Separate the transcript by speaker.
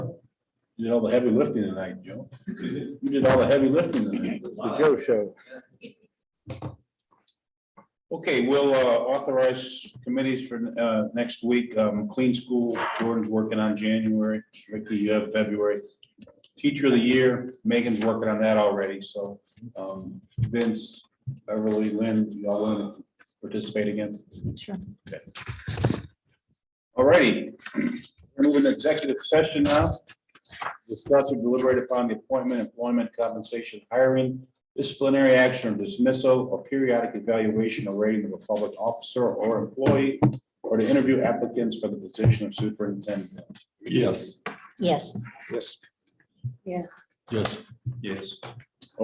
Speaker 1: You did all the heavy lifting tonight, Joe. You did all the heavy lifting tonight.
Speaker 2: The Joe Show.
Speaker 1: Okay, we'll uh, authorize committees for uh, next week. Um, Clean School, Jordan's working on January, Ricky, you have February. Teacher of the Year, Megan's working on that already, so um, Vince, Beverly, Lynn, y'all want to participate again?
Speaker 3: Sure.
Speaker 1: All righty, we're moving to executive session now. Discuss or deliberate upon the appointment, employment, compensation, hiring, disciplinary action or dismissal, or periodic evaluation or rating of a public officer or employee, or to interview applicants for the position of superintendent.
Speaker 4: Yes.
Speaker 3: Yes.
Speaker 2: Yes.
Speaker 3: Yes.
Speaker 4: Yes.
Speaker 1: Yes.